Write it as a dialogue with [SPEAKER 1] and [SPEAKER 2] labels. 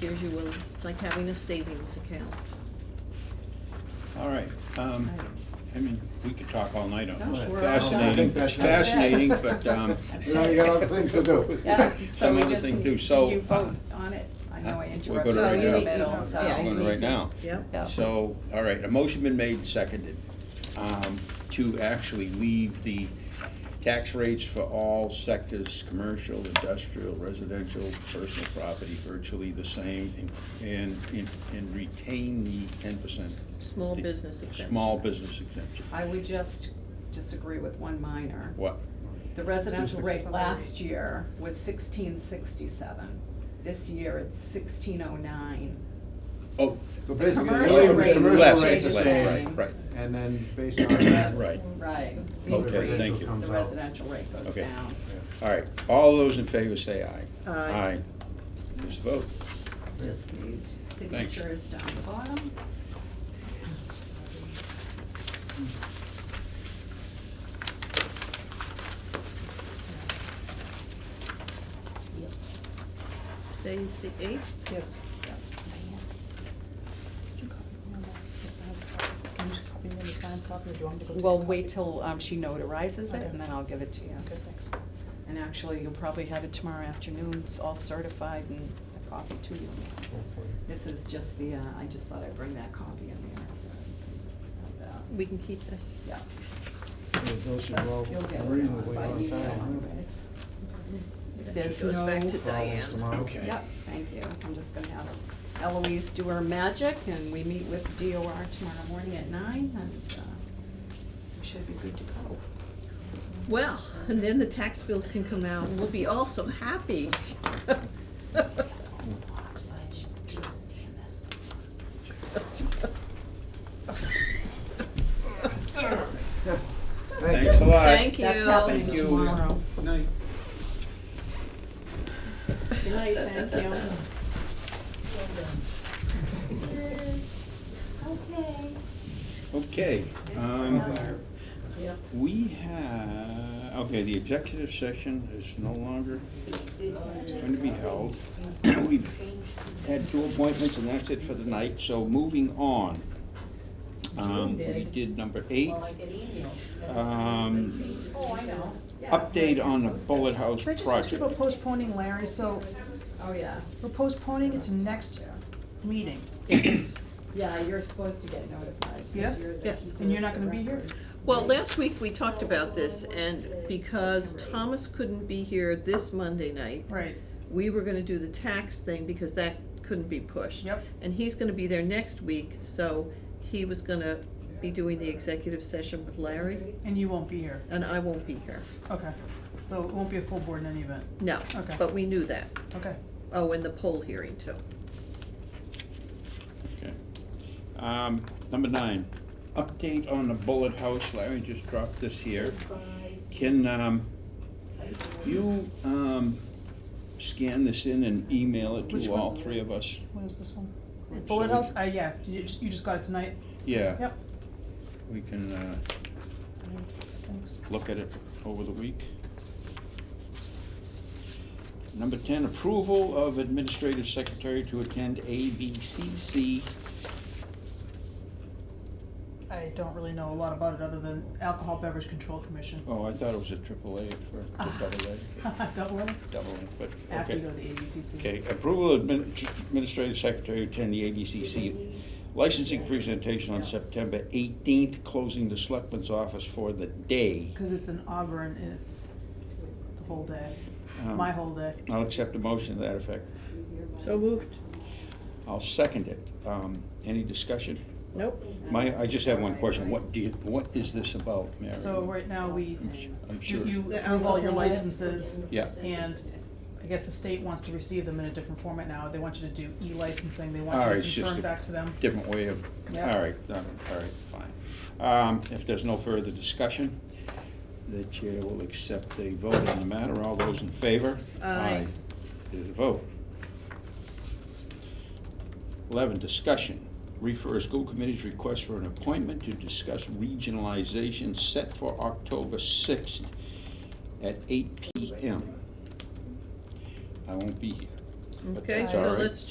[SPEAKER 1] gives you a, it's like having a savings account.
[SPEAKER 2] All right, um, I mean, we could talk all night on
[SPEAKER 3] No,
[SPEAKER 2] this.
[SPEAKER 3] we're all
[SPEAKER 4] done.
[SPEAKER 2] Fascinating, it's
[SPEAKER 4] That's it.
[SPEAKER 2] fascinating, but, um,
[SPEAKER 4] You know, you got other things to do.
[SPEAKER 3] Yeah, so
[SPEAKER 2] Some
[SPEAKER 3] we
[SPEAKER 2] other
[SPEAKER 3] just
[SPEAKER 2] thing
[SPEAKER 3] need,
[SPEAKER 2] too,
[SPEAKER 3] you
[SPEAKER 2] so,
[SPEAKER 3] vote
[SPEAKER 2] uh,
[SPEAKER 3] on it. I know I
[SPEAKER 2] we're
[SPEAKER 3] interrupted
[SPEAKER 2] gonna
[SPEAKER 3] you
[SPEAKER 2] write
[SPEAKER 3] in the
[SPEAKER 2] it
[SPEAKER 3] middle,
[SPEAKER 2] up.
[SPEAKER 3] so.
[SPEAKER 1] Yeah,
[SPEAKER 2] I'm
[SPEAKER 1] you
[SPEAKER 2] going
[SPEAKER 1] need
[SPEAKER 2] right
[SPEAKER 1] to-
[SPEAKER 2] now.
[SPEAKER 1] Yep.
[SPEAKER 3] Yeah.
[SPEAKER 2] So, all right, a motion been made, and seconded, um, to actually leave the tax rates for all sectors, commercial, industrial, residential, personal property, virtually the same, and, and, and retain the ten percent.
[SPEAKER 1] Small business exemption.
[SPEAKER 2] Small business exemption.
[SPEAKER 3] I would just disagree with one minor.
[SPEAKER 2] What?
[SPEAKER 3] The residential rate last year was sixteen sixty-seven. This year it's sixteen oh nine.
[SPEAKER 2] Oh,
[SPEAKER 4] So basically,
[SPEAKER 3] commercial
[SPEAKER 4] the only
[SPEAKER 3] rate
[SPEAKER 4] commercial
[SPEAKER 2] less,
[SPEAKER 3] Less,
[SPEAKER 4] rate's the
[SPEAKER 3] less,
[SPEAKER 4] same,
[SPEAKER 2] right, right.
[SPEAKER 4] and then based on that.
[SPEAKER 2] Right.
[SPEAKER 3] Right.
[SPEAKER 4] Okay,
[SPEAKER 3] Increase.
[SPEAKER 2] thank you.
[SPEAKER 3] The residential rate goes
[SPEAKER 2] Okay.
[SPEAKER 3] down.
[SPEAKER 2] All right, all those in favor say aye.
[SPEAKER 1] Aye.
[SPEAKER 2] Just vote.
[SPEAKER 3] Just need signatures down the bottom.
[SPEAKER 1] Today's the eighth? Yes.
[SPEAKER 5] Can you just copy me the signed copy, or do you want me to go? take
[SPEAKER 3] Well,
[SPEAKER 5] a
[SPEAKER 3] wait till um, she notarizes it, and then I'll give it to you.
[SPEAKER 5] copy? Okay, thanks.
[SPEAKER 3] And actually, you'll probably have it tomorrow afternoon, it's all certified and a copy to you. This is just the, uh, I just thought I'd bring that copy in there, so. like that.
[SPEAKER 1] We can keep this.
[SPEAKER 3] Yeah.
[SPEAKER 4] Those should go
[SPEAKER 3] You'll get
[SPEAKER 4] out
[SPEAKER 3] it
[SPEAKER 4] reasonably
[SPEAKER 3] by
[SPEAKER 4] on
[SPEAKER 3] email
[SPEAKER 4] time.
[SPEAKER 3] anyways.
[SPEAKER 1] Then it
[SPEAKER 3] There's
[SPEAKER 1] Goes back
[SPEAKER 3] no-
[SPEAKER 1] to
[SPEAKER 4] huh? Almost
[SPEAKER 1] Diane.
[SPEAKER 4] tomorrow.
[SPEAKER 2] Okay.
[SPEAKER 3] Yep, thank you. I'm just gonna have Eloise do her magic, and we meet with DOR tomorrow morning at nine, and, uh, we should be good to go.
[SPEAKER 1] Well, and then the tax bills can come out and we'll be all so happy.
[SPEAKER 4] Thank
[SPEAKER 2] Thanks a lot.
[SPEAKER 1] Thank you.
[SPEAKER 3] That's happening
[SPEAKER 2] Thank you.
[SPEAKER 3] tomorrow.
[SPEAKER 2] Night.
[SPEAKER 3] Good night, thank you.
[SPEAKER 6] Okay.
[SPEAKER 2] Okay, um,
[SPEAKER 3] Yep.
[SPEAKER 2] we have, okay, the executive session is no longer going to be held. We've had two appointments and that's it for the night, so moving on. Um, we did number eight. Um,
[SPEAKER 3] Oh, I know.
[SPEAKER 2] update on the bullet house
[SPEAKER 5] Can I just ask you about
[SPEAKER 2] project.
[SPEAKER 5] postponing, Larry? So
[SPEAKER 3] Oh, yeah.
[SPEAKER 5] we're postponing it to next meeting.
[SPEAKER 3] Yeah, you're supposed to get notified. 'cause
[SPEAKER 5] Yes?
[SPEAKER 3] you're the
[SPEAKER 1] Yes.
[SPEAKER 3] keeper
[SPEAKER 5] And you're
[SPEAKER 3] of
[SPEAKER 5] not
[SPEAKER 3] the
[SPEAKER 5] gonna be here?
[SPEAKER 3] records.
[SPEAKER 1] Well, last week we talked about this and because Thomas couldn't be here this Monday night,
[SPEAKER 5] Right.
[SPEAKER 1] we were gonna do the tax thing because that couldn't be pushed.
[SPEAKER 5] Yep.
[SPEAKER 1] And he's gonna be there next week, so he was gonna be doing the executive session with Larry,
[SPEAKER 5] And you won't be here.
[SPEAKER 1] and I won't be here.
[SPEAKER 5] Okay. So it won't be a full board in any event.
[SPEAKER 1] No,
[SPEAKER 5] Okay.
[SPEAKER 1] but we knew that.
[SPEAKER 5] Okay.
[SPEAKER 1] Oh, and the poll hearing too.
[SPEAKER 2] Okay. Um, number nine, update on the bullet house, Larry just dropped this here. Can, um, you, um, scan this in and email it
[SPEAKER 5] Which
[SPEAKER 2] to all
[SPEAKER 5] one?
[SPEAKER 2] three of us?
[SPEAKER 5] What is this one?
[SPEAKER 2] Which
[SPEAKER 5] Bullet
[SPEAKER 2] one?
[SPEAKER 5] House? Uh, yeah, you just, you just got it tonight.
[SPEAKER 2] Yeah,
[SPEAKER 5] Yep.
[SPEAKER 2] we can, uh,
[SPEAKER 5] Thanks.
[SPEAKER 2] look at it over the week. Number ten, approval of administrative secretary to attend ABCC.
[SPEAKER 5] I don't really know a lot about it other than Alcohol Beverage Control Commission.
[SPEAKER 2] Oh, I thought it was a triple A for,
[SPEAKER 5] Ah.
[SPEAKER 2] double A,
[SPEAKER 5] Don't worry.
[SPEAKER 2] double A, but, okay.
[SPEAKER 5] After you go to the ABCC.
[SPEAKER 2] Okay, approval of admin- Administrative Secretary to attend the ABCC licensing presentation on September eighteenth, closing the selectman's office for the day.
[SPEAKER 5] Because it's in Auburn and it's the whole day,
[SPEAKER 2] Um,
[SPEAKER 5] my whole day.
[SPEAKER 2] I'll accept a motion to that effect.
[SPEAKER 1] So moved.
[SPEAKER 2] I'll second it. Um, any discussion?
[SPEAKER 1] Nope.
[SPEAKER 2] My, I just have one question. What do you, what is this about, Mary?
[SPEAKER 5] So right now, we,
[SPEAKER 2] I'm su- I'm
[SPEAKER 5] you
[SPEAKER 2] sure.
[SPEAKER 5] you
[SPEAKER 1] The
[SPEAKER 5] approve all your
[SPEAKER 1] alcohol.
[SPEAKER 5] licenses.
[SPEAKER 2] Yeah.
[SPEAKER 5] And I guess the state wants to receive them in a different format now. They want you to do e-licensing, they want
[SPEAKER 2] All right,
[SPEAKER 5] you
[SPEAKER 2] it's
[SPEAKER 5] to
[SPEAKER 2] just
[SPEAKER 5] confirm
[SPEAKER 2] a-
[SPEAKER 5] back to them.
[SPEAKER 2] Different way of,
[SPEAKER 5] Yeah.
[SPEAKER 2] all right, um, all right, fine. Um, if there's no further discussion, the chair will accept a vote on the matter. All those in favor?
[SPEAKER 1] Aye.
[SPEAKER 2] It is a vote. Eleven, discussion. Refer school committee's request for an appointment to discuss regionalization set for October sixth at eight P M. I won't be here. but
[SPEAKER 1] Okay,
[SPEAKER 2] that's all
[SPEAKER 1] so
[SPEAKER 2] right.
[SPEAKER 1] let's change